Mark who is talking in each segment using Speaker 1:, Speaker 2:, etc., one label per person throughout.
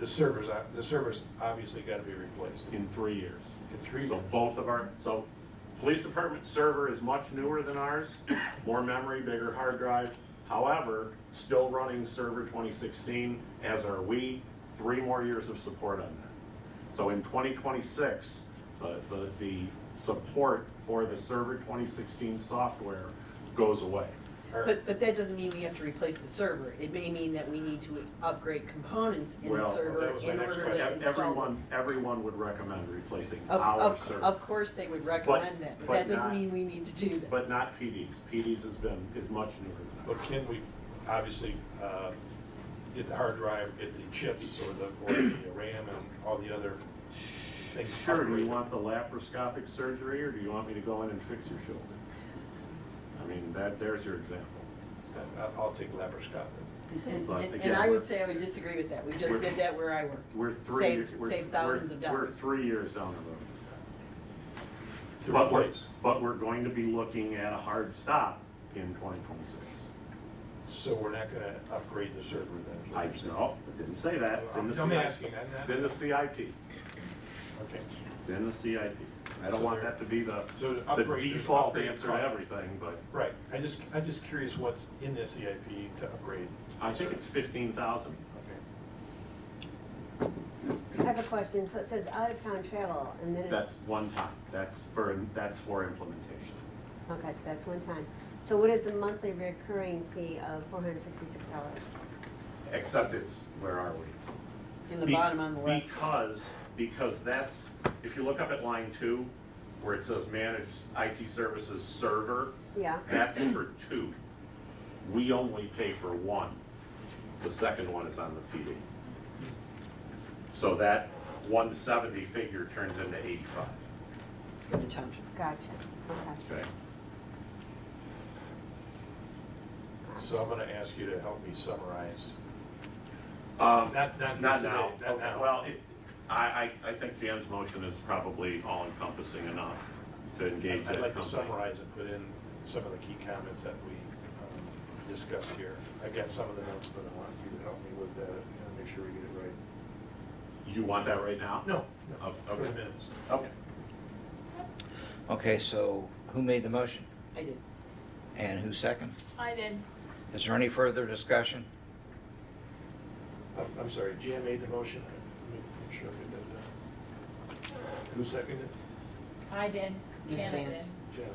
Speaker 1: the servers, are- the servers obviously gotta be replaced
Speaker 2: in three years.
Speaker 1: in three
Speaker 2: So
Speaker 1: years.
Speaker 2: both of our, so police department server is much newer than ours, more memory, bigger hard drive. However, still running server 2016, as are we, three more years of support on that. So in 2026, the, the, the support for the server 2016 software goes away.
Speaker 1: Or-
Speaker 3: But, but that doesn't mean we have to replace the server. It may mean that we need to upgrade components in the
Speaker 2: Well,
Speaker 3: server
Speaker 1: that was my
Speaker 3: in
Speaker 1: next
Speaker 3: order
Speaker 2: Ev-
Speaker 3: to
Speaker 1: question.
Speaker 3: install. them.
Speaker 2: Everyone, everyone would recommend replacing
Speaker 3: Of,
Speaker 2: our
Speaker 3: of,
Speaker 2: server.
Speaker 3: of course, they would recommend that, but
Speaker 2: but
Speaker 3: that
Speaker 2: not-
Speaker 3: doesn't mean we need to do that.
Speaker 2: But not PD's. PD's has been, is much newer than
Speaker 1: But can we, obviously, uh, get the hard drive, get the chips or the, or the RAM and all the other things?
Speaker 2: ours. Sure, do you
Speaker 1: upgraded?
Speaker 2: want the laparoscopic surgery, or do you want me to go in and fix your shoulder? I mean, that, there's your example.
Speaker 1: I- Uh, I'll take laparoscopic.
Speaker 3: And,
Speaker 2: But
Speaker 3: and-
Speaker 2: again,
Speaker 3: and I would
Speaker 2: we're-
Speaker 3: say I would disagree with that. We just
Speaker 2: we're-
Speaker 3: did that where I work.
Speaker 2: We're three.
Speaker 3: Save-
Speaker 2: years- we're-
Speaker 3: save
Speaker 2: we're-
Speaker 3: thousands of
Speaker 2: We're
Speaker 3: dollars.
Speaker 2: three years down the road.
Speaker 1: To
Speaker 2: But we're-
Speaker 1: replace.
Speaker 2: But we're going to be looking at a hard stop in 2026.
Speaker 1: So we're not gonna upgrade the server then? is what
Speaker 2: I,
Speaker 1: you're saying?
Speaker 2: no, I didn't say that. It's in the
Speaker 1: I'm
Speaker 2: CIP.
Speaker 1: asking, I'm not-
Speaker 2: It's in the CIP.
Speaker 1: Okay.
Speaker 2: It's in the CIP. I don't
Speaker 1: So
Speaker 2: want
Speaker 1: there-
Speaker 2: that to be the,
Speaker 1: so to
Speaker 2: the
Speaker 1: upgrade- there's an
Speaker 2: default
Speaker 1: upgrade
Speaker 2: answer to
Speaker 1: cost.
Speaker 2: everything, but.
Speaker 1: Right, I just, I'm just curious what's in the CIP to upgrade.
Speaker 2: I think it's fifteen thousand.
Speaker 1: Okay.
Speaker 4: I have a question, so it says out of town travel, and then it.
Speaker 2: That's one time, that's for, that's for implementation.
Speaker 4: Okay, so that's one time. So what is the monthly recurring fee of four hundred sixty-six dollars?
Speaker 2: Except it's, where are we?
Speaker 3: In the bottom on the left.
Speaker 2: Because, because that's, if you look up at line two, where it says managed IT services server,
Speaker 4: Yeah,
Speaker 2: that's for two. We only pay for one. The second one is on the PD. So that one seventy figure turns into eighty-five,
Speaker 3: for the township.
Speaker 4: gotcha, okay.
Speaker 2: okay?
Speaker 1: So I'm gonna ask you to help me summarize.
Speaker 2: Um,
Speaker 1: Not, not.
Speaker 2: Not
Speaker 1: today,
Speaker 2: now.
Speaker 1: Not now.
Speaker 2: Well, it- I, I, I think Jan's motion is probably all encompassing enough to engage that
Speaker 1: I'd like to
Speaker 2: company.
Speaker 1: summarize and put in some of the key comments that we um, discussed here. I've got some of the notes, but I want you to help me with that and make sure we get it right.
Speaker 2: You want that right now?
Speaker 1: No,
Speaker 2: Oh,
Speaker 1: no, for
Speaker 2: okay.
Speaker 1: the minutes.
Speaker 2: Okay.
Speaker 5: Okay, so who made the motion
Speaker 3: I did.
Speaker 5: and who seconded?
Speaker 6: I did.
Speaker 5: Is there any further discussion?
Speaker 1: I'm, I'm sorry, Jan made the motion. Let me Make sure I get that down. Who seconded?
Speaker 6: I did.
Speaker 3: Ms.
Speaker 6: Janet did.
Speaker 3: Vance.
Speaker 1: Janet.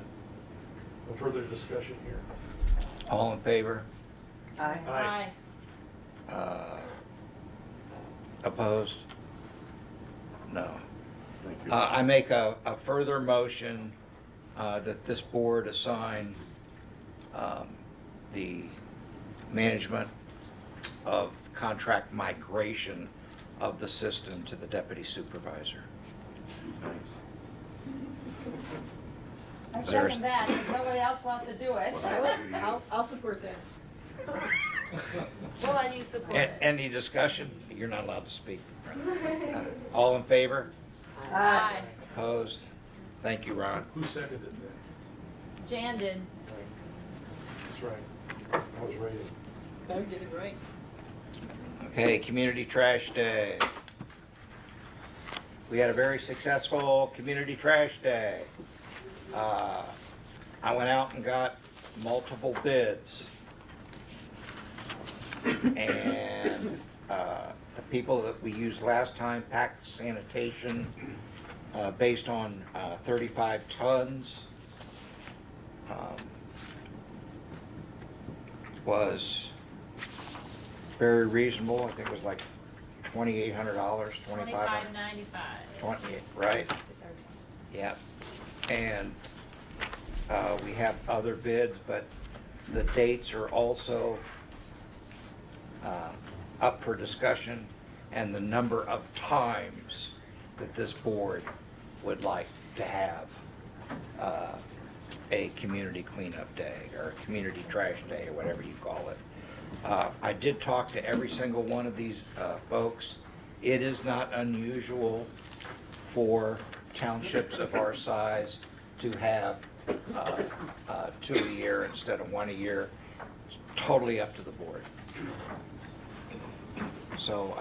Speaker 1: No further discussion here.
Speaker 5: All in favor?
Speaker 3: Aye.
Speaker 1: Aye.
Speaker 5: Uh, Opposed? No.
Speaker 2: Thank you.
Speaker 5: Uh, I make a a further motion uh, that this board assign um, the management of contract migration of the system to the deputy supervisor.
Speaker 2: Thanks.
Speaker 6: I
Speaker 5: Is there-
Speaker 6: second that, if nobody else wants to do it.
Speaker 2: Well, that's-
Speaker 3: I'll, I'll support that.
Speaker 6: Well, I need support.
Speaker 5: A- Any discussion? You're not allowed to speak. Uh, All in favor?
Speaker 6: Aye.
Speaker 5: Opposed? Thank you, Ron.
Speaker 1: Who seconded that?
Speaker 6: Jan did.
Speaker 1: That's right. I was ready.
Speaker 3: Better get it right.
Speaker 5: Okay, Community Trash Day. We had a very successful Community Trash Day. Uh, I went out and got multiple bids. And uh, the people that we used last time packed sanitation uh, based on uh, 35 tons um, was very reasonable. I think it was like twenty-eight hundred dollars, twenty-five,
Speaker 6: Twenty-five ninety-five.
Speaker 5: twenty, right? Yep. And, uh, we have other bids, but the dates are also, uh, up for discussion and the number of times that this board would like to have, uh, a community cleanup day or a community trash day or whatever you call it. Uh, I did talk to every single one of these, uh, folks. It is not unusual for townships of our size to have uh, uh, two a year instead of one a year. It's Totally up to the board. So